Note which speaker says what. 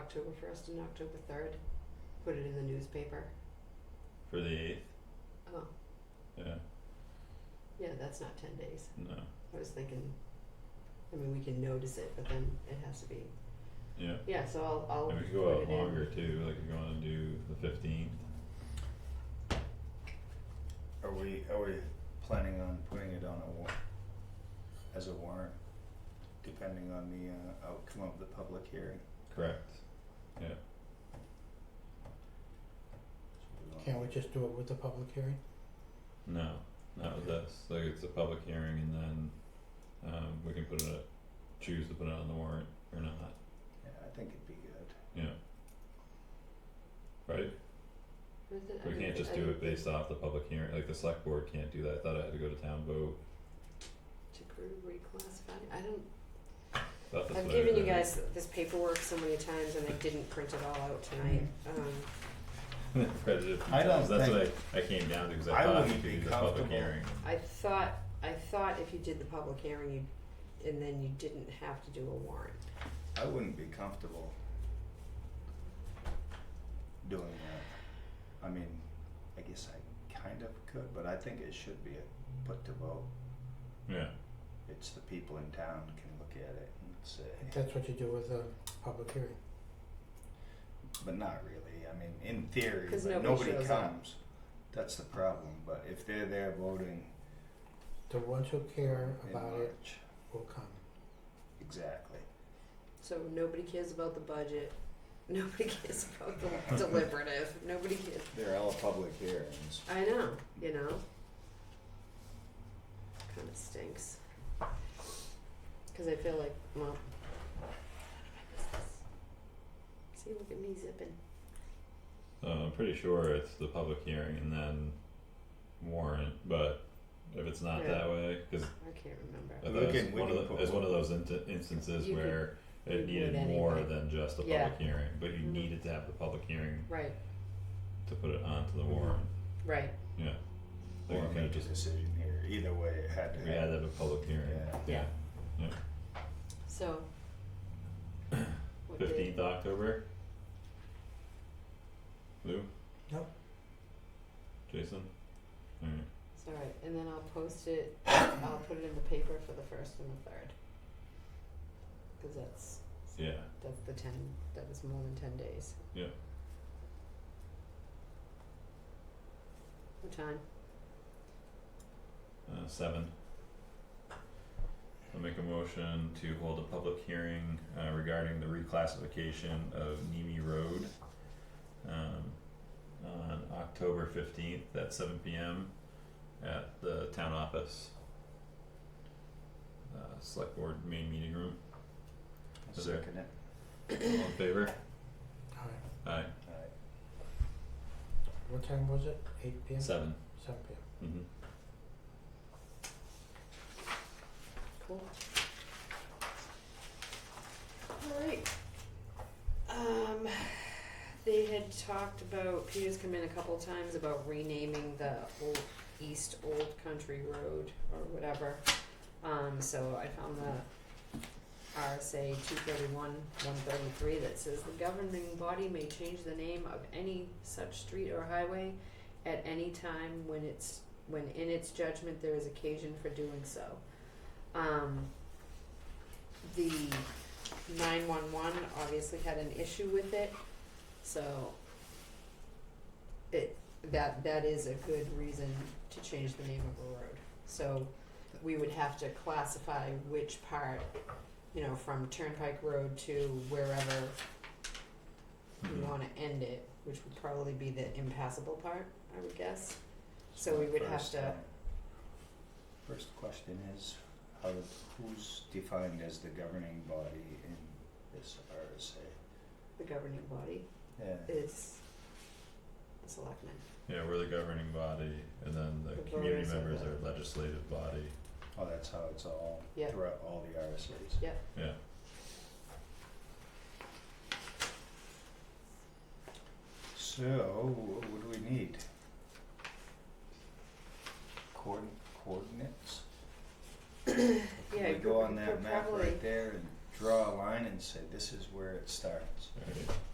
Speaker 1: October first and October third, put it in the newspaper.
Speaker 2: for the eighth,
Speaker 1: Oh,
Speaker 2: yeah,
Speaker 1: yeah, that's not ten days.
Speaker 2: no,
Speaker 1: I was thinking, I mean, we can notice it, but then it has to be,
Speaker 2: yeah.
Speaker 1: yeah, so I'll, I'll
Speaker 2: And
Speaker 1: put
Speaker 2: we
Speaker 1: it
Speaker 2: could
Speaker 1: in.
Speaker 2: go out longer too, like we're gonna do the fifteenth,
Speaker 3: Are we, are we planning on putting it on a war, as a warrant, depending on the uh outcome of the public hearing?
Speaker 2: correct?
Speaker 4: Can't we just do it with the public hearing?
Speaker 2: No, not with this, like it's a public hearing and then, um, we can put it, up- choose to put it on the warrant or not,
Speaker 3: Yeah, I think it'd be good.
Speaker 2: yeah. Right,
Speaker 1: Was it? I
Speaker 2: we
Speaker 1: don't
Speaker 2: can't
Speaker 1: thi-
Speaker 2: just
Speaker 1: I
Speaker 2: do
Speaker 1: don't
Speaker 2: it based off the public hearing, like the select board can't do that, I thought I had to go to town vote,
Speaker 1: think To group reclassify, I don't,
Speaker 2: thought that's
Speaker 1: I've
Speaker 2: what I
Speaker 1: given you
Speaker 2: read.
Speaker 1: guys this paperwork so many times and I didn't print it all out tonight,
Speaker 2: Mm-hmm.
Speaker 1: um,
Speaker 2: Read it a few
Speaker 3: I don't
Speaker 2: times. that's what
Speaker 3: think-
Speaker 2: I, I came down to, cause I
Speaker 3: I
Speaker 2: thought we
Speaker 3: wouldn't
Speaker 2: could
Speaker 3: be
Speaker 2: do the public
Speaker 3: comfortable.
Speaker 2: hearing,
Speaker 1: I thought, I thought if you did the public hearing, you, and then you didn't have to do a warrant.
Speaker 3: I wouldn't be comfortable doing that. I mean, I guess I kind of could, but I think it should be a put to vote.
Speaker 2: yeah,
Speaker 3: It's the people in town can look at it and say,
Speaker 4: That's what you do with a public hearing.
Speaker 3: but not really. I mean, in theory,
Speaker 1: 'Cause
Speaker 3: but
Speaker 1: nobody
Speaker 3: nobody
Speaker 1: shows up.
Speaker 3: comes. That's the problem, but if they're there voting
Speaker 4: The ones who care
Speaker 3: in
Speaker 4: about it
Speaker 3: March,
Speaker 4: will come.
Speaker 3: exactly.
Speaker 1: So nobody cares about the budget, nobody cares about the deliberative, nobody cares,
Speaker 3: They're all public hearings.
Speaker 1: I know, you know? Kinda stinks. Cause I feel like, well. none of my business. See, look at me zipping.
Speaker 2: Uh, I'm pretty sure it's the public hearing and then warrant, but if it's not
Speaker 1: Yeah.
Speaker 2: that way, cause
Speaker 1: I can't remember.
Speaker 2: I thought
Speaker 3: We
Speaker 2: it's
Speaker 3: can- we
Speaker 2: one
Speaker 3: can
Speaker 2: of the,
Speaker 3: put
Speaker 2: it's one of those inti- instances
Speaker 1: You could-
Speaker 2: where
Speaker 1: you
Speaker 2: it
Speaker 1: could
Speaker 2: needed
Speaker 1: anyway.
Speaker 2: more than just a
Speaker 1: Yeah.
Speaker 2: public hearing, but you
Speaker 1: Mhm.
Speaker 2: needed to have the public hearing
Speaker 1: Right,
Speaker 2: to put it onto the
Speaker 1: Mhm.
Speaker 2: warrant,
Speaker 1: right.
Speaker 2: yeah. Like
Speaker 3: Or
Speaker 2: we kinda
Speaker 3: make a
Speaker 2: just,
Speaker 3: decision here. Either way, it had to
Speaker 2: we had
Speaker 3: happen.
Speaker 2: to have a public hearing,
Speaker 3: Yeah.
Speaker 2: yeah,
Speaker 1: Yeah. So. What day?
Speaker 2: fifteenth October. Lou?
Speaker 4: Yep.
Speaker 2: Jason? Alright,
Speaker 1: It's alright, and then I'll post it, I'll put it in the paper for the first and the third. Cause that's,
Speaker 2: yeah,
Speaker 1: that's the ten, that was more than ten days.
Speaker 2: Yeah.
Speaker 1: What time?
Speaker 2: Uh, seven. I'll make a motion to hold a public hearing uh regarding the reclassification of Nemi Road. Um, on October fifteenth at seven P M at the town office. Uh, select board main meeting room,
Speaker 3: I'll Second it.
Speaker 2: all in favor?
Speaker 4: Alright,
Speaker 2: Aye,
Speaker 3: Alright.
Speaker 4: what time was it? Eight P M?
Speaker 2: seven,
Speaker 4: Seven P M.
Speaker 2: mm-hmm.
Speaker 1: Cool. Alright. Um, they had talked about, Peter's come in a couple times about renaming the old, East Old Country Road or whatever. Um, so I found the RSA two thirty-one, one thirty-three that says the governing body may change the name of any such street or highway at any time when it's, when in its judgment there is occasion for doing so um, the nine one one obviously had an issue with it, so it, that, that is a good reason to change the name of a road. So we would have to classify which part, you know, from Turnpike Road to wherever
Speaker 2: Mm-hmm.
Speaker 1: we wanna end it, which would probably be the impassable part, I would guess. So we would have
Speaker 3: First,
Speaker 1: to-
Speaker 3: um, First question is, how, who's defined as the governing body in this RSA?
Speaker 1: The governing body
Speaker 3: Yeah,
Speaker 1: is the selectmen.
Speaker 2: Yeah, we're the governing body and then the
Speaker 1: The
Speaker 2: community
Speaker 1: voters are
Speaker 2: members
Speaker 1: the-
Speaker 2: are legislative body,
Speaker 3: oh, that's how it's all
Speaker 1: Yeah.
Speaker 3: throughout all the RSAs.
Speaker 1: Yeah.
Speaker 2: yeah,
Speaker 3: So, what would we need? Coordin- coordinates?
Speaker 1: Yeah,
Speaker 3: Can we
Speaker 1: you
Speaker 3: go
Speaker 1: could-
Speaker 3: on
Speaker 1: could
Speaker 3: that map
Speaker 1: probably-
Speaker 3: right there and draw a line and say, this is where it starts.
Speaker 2: Alright.